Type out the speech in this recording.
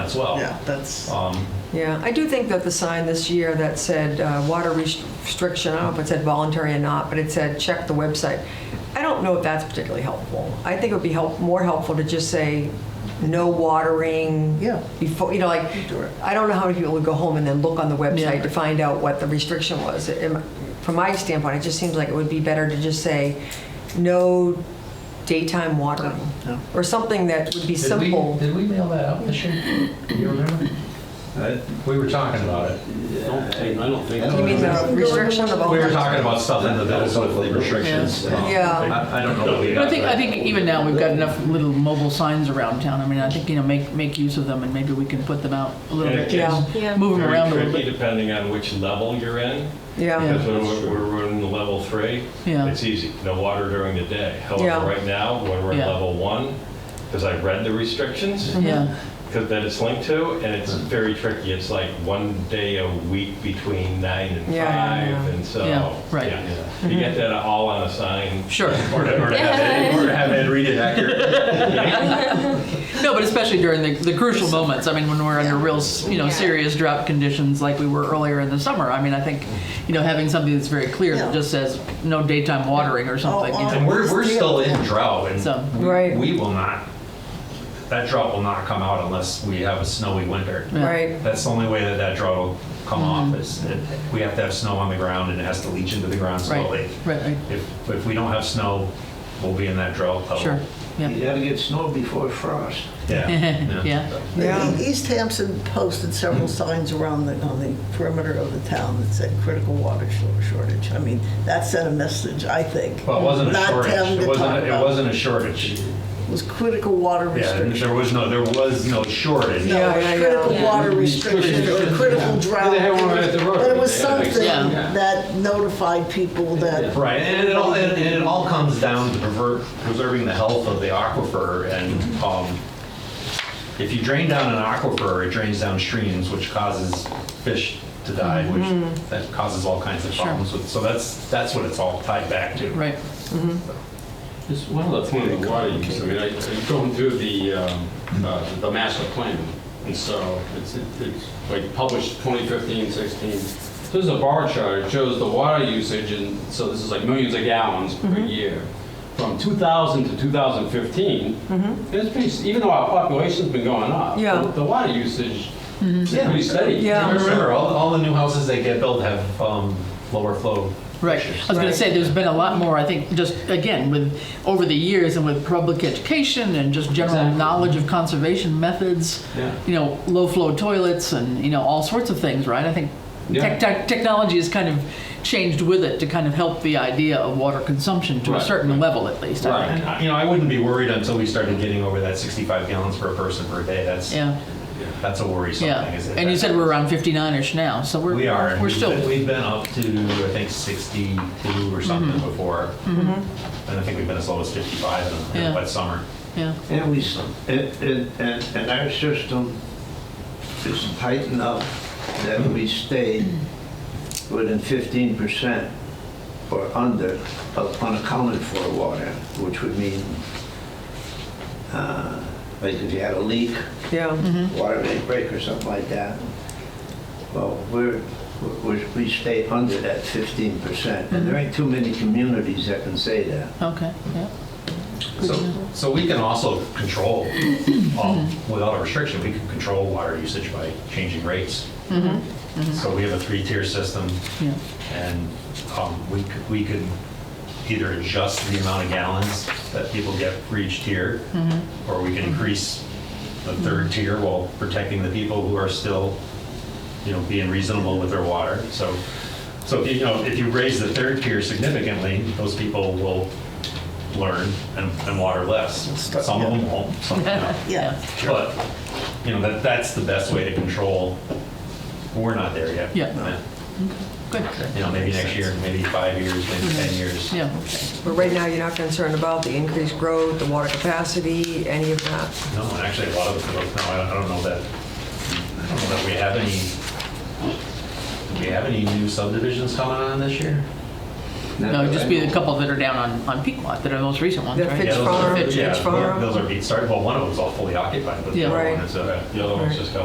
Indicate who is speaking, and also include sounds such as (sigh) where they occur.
Speaker 1: as well.
Speaker 2: Yeah, that's,
Speaker 1: Um,
Speaker 3: Yeah, I do think that the sign this year that said uh, water restriction, I don't know if it said voluntary or not, but it said check the website. I don't know if that's particularly helpful. I think it would be help, more helpful to just say, no watering.
Speaker 2: Yeah.
Speaker 3: Before, you know, like,
Speaker 2: do it.
Speaker 3: I don't know how many people would go home and then look on the website
Speaker 2: Yeah.
Speaker 3: to find out what the restriction was. Am- From my standpoint, it just seems like it would be better to just say, no daytime watering.
Speaker 2: No.
Speaker 3: Or something that would be
Speaker 4: Did we,
Speaker 3: simple.
Speaker 4: did we mail that out this year? Do you remember?
Speaker 1: I-
Speaker 4: We were talking about it.
Speaker 5: I don't think, I don't think.
Speaker 1: You
Speaker 3: You mean the restriction of all?
Speaker 4: We were talking about stuff in the
Speaker 1: That was
Speaker 4: bills.
Speaker 1: sort of the restrictions. um,
Speaker 3: Yeah.
Speaker 1: I I don't know. that we
Speaker 6: But I
Speaker 1: got
Speaker 6: think,
Speaker 1: that.
Speaker 6: I think even now, we've got enough little mobile signs around town. I mean, I think, you know, make, make use of them and maybe we can put them out a little
Speaker 5: Yeah,
Speaker 6: bit.
Speaker 3: Yeah,
Speaker 7: Yeah.
Speaker 6: Move them
Speaker 5: Very
Speaker 6: around a little
Speaker 5: tricky
Speaker 6: bit.
Speaker 5: depending on which level you're in.
Speaker 3: yeah.
Speaker 5: Because when we're- we're we're in the level three,
Speaker 6: Yeah.
Speaker 5: it's easy, no water during the day.
Speaker 3: Yeah.
Speaker 5: However, right now, when we're in
Speaker 6: Yeah.
Speaker 5: level one, because I read the restrictions
Speaker 3: Mm-hmm.
Speaker 6: Yeah,
Speaker 5: because that it's linked to, and it's
Speaker 1: Mm.
Speaker 5: very tricky. It's like one day a week between nine and
Speaker 3: Yeah, yeah, yeah.
Speaker 5: five, and so.
Speaker 6: Yeah, right.
Speaker 5: yeah. You get that all on a sign.
Speaker 6: sure.
Speaker 1: (laughs) Or to or to have Ed or to have Ed read it accurately.
Speaker 6: No, but especially during the, the crucial moments. I mean, when we're under real, s- you know,
Speaker 7: Yeah.
Speaker 6: serious drought conditions like we were earlier in the summer. I mean, I think, you know, having something that's very clear that
Speaker 2: Yeah.
Speaker 6: just says no daytime watering or something. you know.
Speaker 1: And we're, we're still in drought
Speaker 6: So-
Speaker 1: and we-
Speaker 3: Right.
Speaker 1: we will not, that drought will not come out unless we have a snowy winter.
Speaker 6: Yeah.
Speaker 3: Right.
Speaker 1: That's the only way that that drought will come off
Speaker 6: Mm-hmm.
Speaker 1: is that we have to have snow on the ground and it has to leach into the ground slowly.
Speaker 6: Right, right, right.
Speaker 1: If, if we don't have snow, we'll be in that drought level.
Speaker 6: Sure, yeah.
Speaker 8: You gotta get snow before frost.
Speaker 6: (laughs)
Speaker 1: Yeah.
Speaker 6: Yeah,
Speaker 3: Yeah.
Speaker 2: The E-, East Hampton posted several signs around the, on the perimeter of the town that said critical water shor- shortage. I mean, that sent a message, I think.
Speaker 1: Well, it wasn't a
Speaker 2: Not town
Speaker 1: shortage.
Speaker 2: to
Speaker 1: It
Speaker 2: talk
Speaker 1: wasn't, it
Speaker 2: about.
Speaker 1: wasn't a shortage.
Speaker 2: It was critical water
Speaker 1: Yeah, and
Speaker 2: restriction.
Speaker 1: there was no, there was no shortage.
Speaker 2: No,
Speaker 3: Yeah, yeah, yeah.
Speaker 2: critical
Speaker 3: Yeah.
Speaker 2: water restriction or critical drought.
Speaker 4: They had one right at the road.
Speaker 2: But it was
Speaker 4: They had a big
Speaker 2: something
Speaker 6: sign.
Speaker 4: Yeah.
Speaker 2: that notified people that.
Speaker 1: Right, and it all, and it all comes down to prever- preserving the health of the aquifer, and um, if you drain down an aquifer, it drains down streams, which causes fish to die,
Speaker 2: Mm-hmm.
Speaker 1: which that causes all kinds of problems with, so that's, that's what it's all tied back to.
Speaker 6: right.
Speaker 5: Just one other point on the water use, I mean, I, I'm going through the, um, uh, the master plan, and so it's, it's like published 2015, 16. So there's a bar chart, it shows the water usage, and so this is like millions of gallons per
Speaker 3: Mm-hmm.
Speaker 5: year. From 2000 to 2015, it's pretty, even though our population's been going up,
Speaker 3: Mm-hmm. Yeah. Mm-hmm.
Speaker 5: the- the water usage is pretty steady.
Speaker 3: Yeah.
Speaker 1: Remember, all, all the new houses that get built have um, lower flow.
Speaker 6: Right. I was going
Speaker 3: Right.
Speaker 6: to say, there's been a lot more, I think, just again, with, over the years and with public education and just general
Speaker 5: Exactly.
Speaker 6: knowledge of conservation methods,
Speaker 5: Yeah.
Speaker 6: you know, low flow toilets and, you know, all sorts of things, right? I think
Speaker 5: Yeah.
Speaker 6: tech, tech, technology has kind of changed with it to kind of help the idea of water consumption to a
Speaker 5: Right,
Speaker 6: certain level at least. I think.
Speaker 1: Right, you know, I wouldn't be worried until we started getting over that 65 gallons per person per day, that's,
Speaker 6: Yeah,
Speaker 1: that's a worrisome
Speaker 6: yeah.
Speaker 1: thing. is that
Speaker 6: And you
Speaker 1: that-
Speaker 6: said we're around 59-ish now, so we're,
Speaker 1: We are. and
Speaker 6: we're
Speaker 1: we've been-
Speaker 6: still,
Speaker 1: We've been up to, I think, 62 or something
Speaker 6: Mm-hmm.
Speaker 1: before. And I think we've been as low as 55 in-
Speaker 6: Yeah.
Speaker 1: in wet summer.
Speaker 6: yeah,
Speaker 8: And we, s- and, and, and and our system is tight enough that we stay within fifteen percent or under of unaccounted for water, which would mean, uh, like if you had a leak,
Speaker 3: Yeah,
Speaker 8: water main break or something like that. Well, we're, we're, we stay under that fifteen percent, and there ain't too many communities that can say that.
Speaker 6: okay, yeah.
Speaker 1: So, so we can also
Speaker 6: (coughs)
Speaker 1: control, um, without a restriction, we can control water usage by changing rates. So we have a three-tier system.
Speaker 6: Yeah.
Speaker 1: And um, we could, we could either adjust the amount of gallons that people get for each tier, or we can increase the third tier while protecting the people who are still, you know, being reasonable with their water. So, so, if you you know, if you raise the third tier significantly, those people will learn and, and water less.
Speaker 2: Start-
Speaker 1: Some of them won't, some, you know.
Speaker 2: Yeah.
Speaker 1: But, you know, that, that's the best way to control. We're not there yet.
Speaker 6: Yeah. Good,
Speaker 1: You know, maybe next year, maybe five years, maybe 10 years.
Speaker 6: Mm-hmm. yeah.
Speaker 3: but right now, you're not concerned about the increased growth, the water capacity, any of that?
Speaker 1: No, and actually, a lot of the, no, I don't- I don't know that, I don't know that we have any, do we have any new subdivisions coming on this year?
Speaker 6: No, it'd just be a couple that are down on, on Pequot that are the most recent ones,
Speaker 3: The
Speaker 6: right?
Speaker 3: Fitch
Speaker 1: Yeah, those are-
Speaker 3: Farm,
Speaker 1: yeah,
Speaker 3: Fitch Farm.
Speaker 1: Those are being started, well, one of them's all fully occupied, but the
Speaker 6: Yeah.
Speaker 1: other one
Speaker 3: Right.
Speaker 1: is, uh,
Speaker 5: The other one's just got